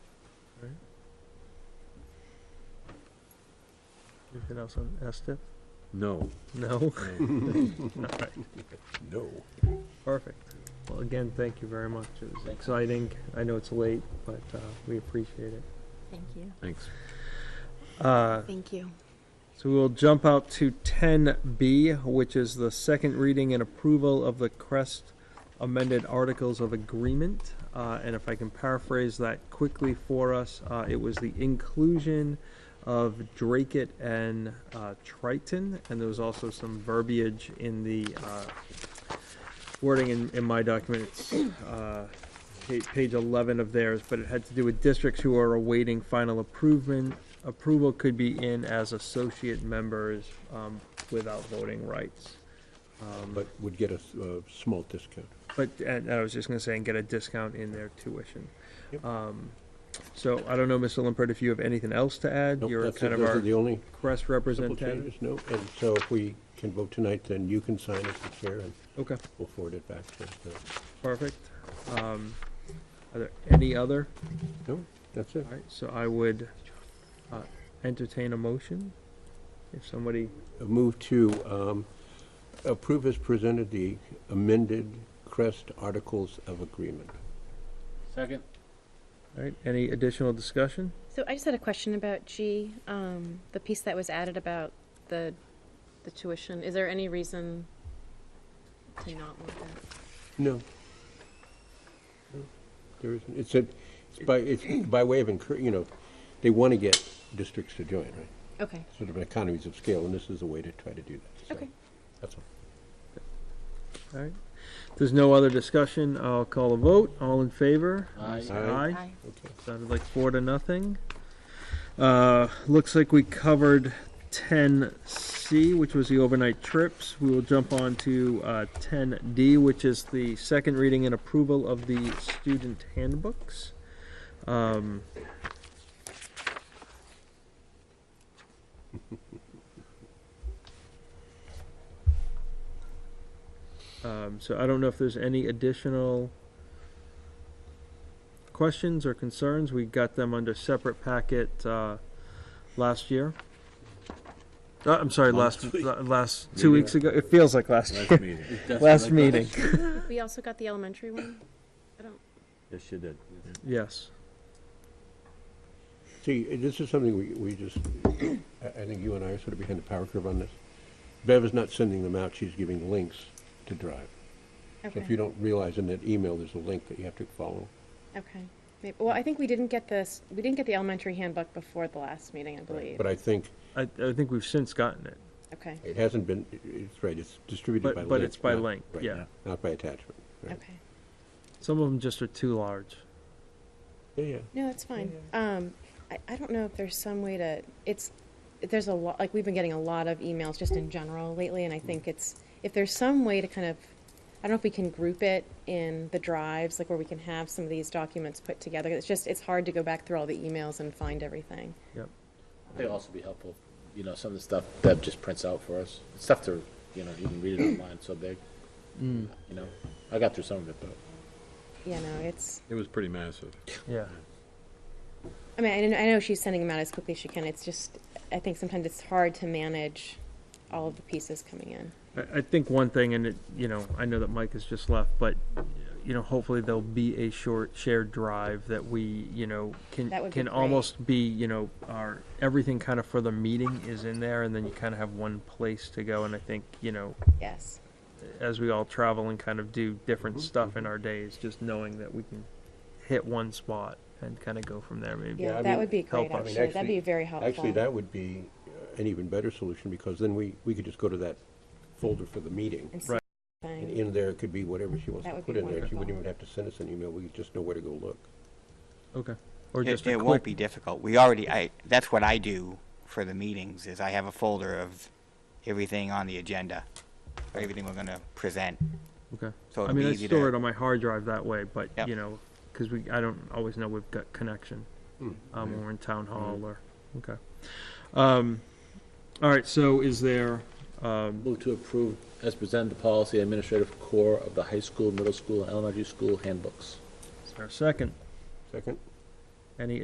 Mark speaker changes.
Speaker 1: Anything else on STIP?
Speaker 2: No.
Speaker 1: No?
Speaker 2: no.
Speaker 3: No.
Speaker 1: Perfect. Well, again, thank you very much. It was exciting. I know it's late, but uh, we appreciate it.
Speaker 4: Thank you.
Speaker 2: Thanks.
Speaker 1: Uh,
Speaker 4: Thank you.
Speaker 1: So we'll jump out to 10B, which is the second reading and approval of the Crest amended Articles of Agreement. Uh, And if I can paraphrase that quickly for us, uh, it was the inclusion of Drakeit and uh, Triton, and there was also some verbiage in the uh, wording in, in my document. It's uh, pa- page 11 of theirs, but it had to do with districts who are awaiting final approval. Approval could be in as associate members um, without voting rights. Um,
Speaker 3: But would get a, uh, s- a small discount.
Speaker 1: But, and and I was just gonna say, and get a discount in their tuition.
Speaker 3: Yep.
Speaker 1: Um, So I don't know, Mr. Limpert, if you have anything else to add?
Speaker 3: Nope,
Speaker 1: You're
Speaker 3: that's it.
Speaker 1: kind of
Speaker 3: Those are
Speaker 1: our
Speaker 3: The only
Speaker 1: Crest
Speaker 3: couple
Speaker 1: representative.
Speaker 3: changes, no, and so if we can vote tonight, then you can sign as the chair and
Speaker 1: Okay,
Speaker 3: we'll forward it back to the,
Speaker 1: perfect. Um, Are there any other?
Speaker 3: no, that's it.
Speaker 1: All right, so I would uh, entertain a motion if somebody,
Speaker 3: A Move to, um, approve as presented the amended Crest Articles of Agreement.
Speaker 2: Second.
Speaker 1: all right, any additional discussion?
Speaker 4: So I just had a question about G, um, the piece that was added about the, the tuition. Is there any reason to not want that?
Speaker 3: No. No, There isn't, it's a, it's by, it's by way of encour, you know, they want to get districts to join, right?
Speaker 4: Okay,
Speaker 3: Sort of economies of scale, and this is a way to try to do that, so.
Speaker 4: okay.
Speaker 3: That's all.
Speaker 1: All right, If there's no other discussion, I'll call a vote, all in favor?
Speaker 3: Aye.
Speaker 4: Aye.
Speaker 3: Okay.
Speaker 1: Sounded like four to nothing. Uh, looks like we covered ten C, which was the overnight trips. We will jump on to, uh, ten D, which is the second reading and approval of the student handbooks. Um, um, so I don't know if there's any additional questions or concerns. We got them under separate packet uh, last year. Uh, I'm sorry, last
Speaker 3: Last week.
Speaker 1: la- last two weeks ago. It feels like last year.
Speaker 2: Last meeting.
Speaker 1: Last meeting.
Speaker 4: We also got the elementary one?
Speaker 2: Yes, you did.
Speaker 1: Yes.
Speaker 3: See, this is something we, we just, I, I think you and I are sort of behind the power curve on this. Bev is not sending them out, she's giving links to Drive. So
Speaker 4: Okay.
Speaker 3: if you don't realize in that email, there's a link that you have to follow.
Speaker 4: Okay. Maybe- Well, I think we didn't get this, we didn't get the elementary handbook before the last meeting, I believe.
Speaker 3: But I think
Speaker 1: I, I think we've since gotten it,
Speaker 4: Okay,
Speaker 3: it hasn't been, it's right, it's distributed by
Speaker 1: but,
Speaker 3: link.
Speaker 1: but it's by
Speaker 3: not-
Speaker 1: link,
Speaker 3: right,
Speaker 1: yeah.
Speaker 3: Not by attachment. right.
Speaker 4: okay.
Speaker 1: Some of them just are too large.
Speaker 3: Yeah, yeah.
Speaker 4: No, that's fine. Um, I, I don't know if there's some way to, it's, there's a lot, like, we've been getting a lot of emails just in general lately, and I think it's, if there's some way to kind of, I don't know if we can group it in the drives, like where we can have some of these documents put together. It's just, it's hard to go back through all the emails and find everything.
Speaker 1: Yep.
Speaker 5: It'd also be helpful, you know, some of the stuff Deb just prints out for us. It's tough to, you know, you can read it online, it's so big,
Speaker 6: Hmm.
Speaker 1: Mm.
Speaker 5: you know. I got through some of it, though.
Speaker 4: You know, it's,
Speaker 2: It was pretty massive.
Speaker 1: Yeah.
Speaker 4: I mean, I know, I know she's sending them out as quickly as she can. It's just, I think sometimes it's hard to manage all of the pieces coming in.
Speaker 1: I, I think one thing, and it, you know, I know that Mike has just left, but, you know, hopefully there'll be a short shared drive that we, you know, can,
Speaker 4: That would be
Speaker 1: can
Speaker 4: great.
Speaker 1: almost be, you know, our, everything kind of for the meeting is in there, and then you kind of have one place to go, and I think, you know,
Speaker 4: Yes.
Speaker 1: as we all travel and kind of do different
Speaker 6: Mm-hmm.
Speaker 1: stuff in our days, just knowing that we can hit one spot and kind of go from there, maybe.
Speaker 3: Yeah, I
Speaker 4: Yeah, that
Speaker 3: mean,
Speaker 4: would be
Speaker 1: help us. I
Speaker 4: great,
Speaker 1: mean,
Speaker 4: actually. That'd
Speaker 3: actually-
Speaker 4: be very helpful.
Speaker 3: Actually, that would be uh, an even better solution, because then we, we could just go to that folder for the meeting.
Speaker 4: And see
Speaker 1: Right.
Speaker 4: everything.
Speaker 3: And in there could be whatever she wants
Speaker 4: That
Speaker 3: to
Speaker 4: would
Speaker 3: put
Speaker 4: be
Speaker 3: in there. She wouldn't
Speaker 4: wonderful.
Speaker 3: even have to send us an email. We just know where to go look.
Speaker 1: Okay. Or
Speaker 6: It,
Speaker 1: just a
Speaker 6: it
Speaker 1: quick
Speaker 6: won't be difficult. We already, I, that's what I do for the meetings, is I have a folder of everything on the agenda, for everything we're gonna present.
Speaker 1: Okay.
Speaker 6: So
Speaker 1: I
Speaker 6: it'd
Speaker 1: mean,
Speaker 6: be
Speaker 1: I
Speaker 6: easy
Speaker 1: store
Speaker 6: to-
Speaker 1: it on my hard drive that way, but
Speaker 6: Yep.
Speaker 1: you know, because we I don't always know we've got connection
Speaker 3: Hmm.
Speaker 1: um, when we're in town hall or okay. Um, all right. So is there? Um,
Speaker 5: Move to approve as presented the policy administrative core of the high school, middle school, and elementary school handbooks.
Speaker 1: is there a second?
Speaker 3: Second?
Speaker 1: Any